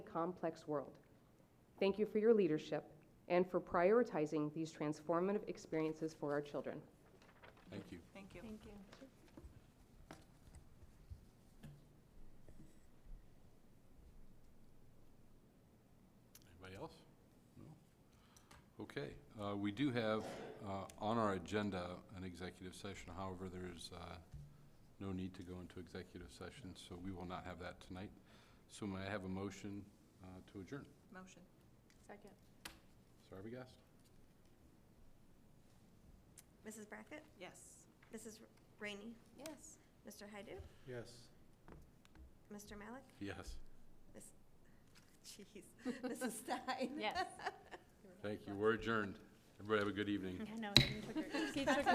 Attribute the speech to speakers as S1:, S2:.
S1: complex world. Thank you for your leadership and for prioritizing these transformative experiences for our children.
S2: Thank you.
S3: Thank you.
S4: Thank you.
S2: Anybody else? No? Okay, uh, we do have uh, on our agenda an executive session. However, there's uh, no need to go into executive session, so we will not have that tonight. So may I have a motion uh, to adjourn?
S3: Motion.
S4: Second.
S2: Sarvagas?
S5: Mrs. Brackett,
S3: Yes.
S5: Mrs. Rainey,
S4: Yes.
S5: Mr. Hydo,
S2: Yes.
S5: Mr. Malik,
S2: Yes.
S5: jeez, Mrs. Stein.
S4: Yes. Mm-hmm.
S2: Thank you. We're adjourned. Everybody have a good evening.
S4: I know. She took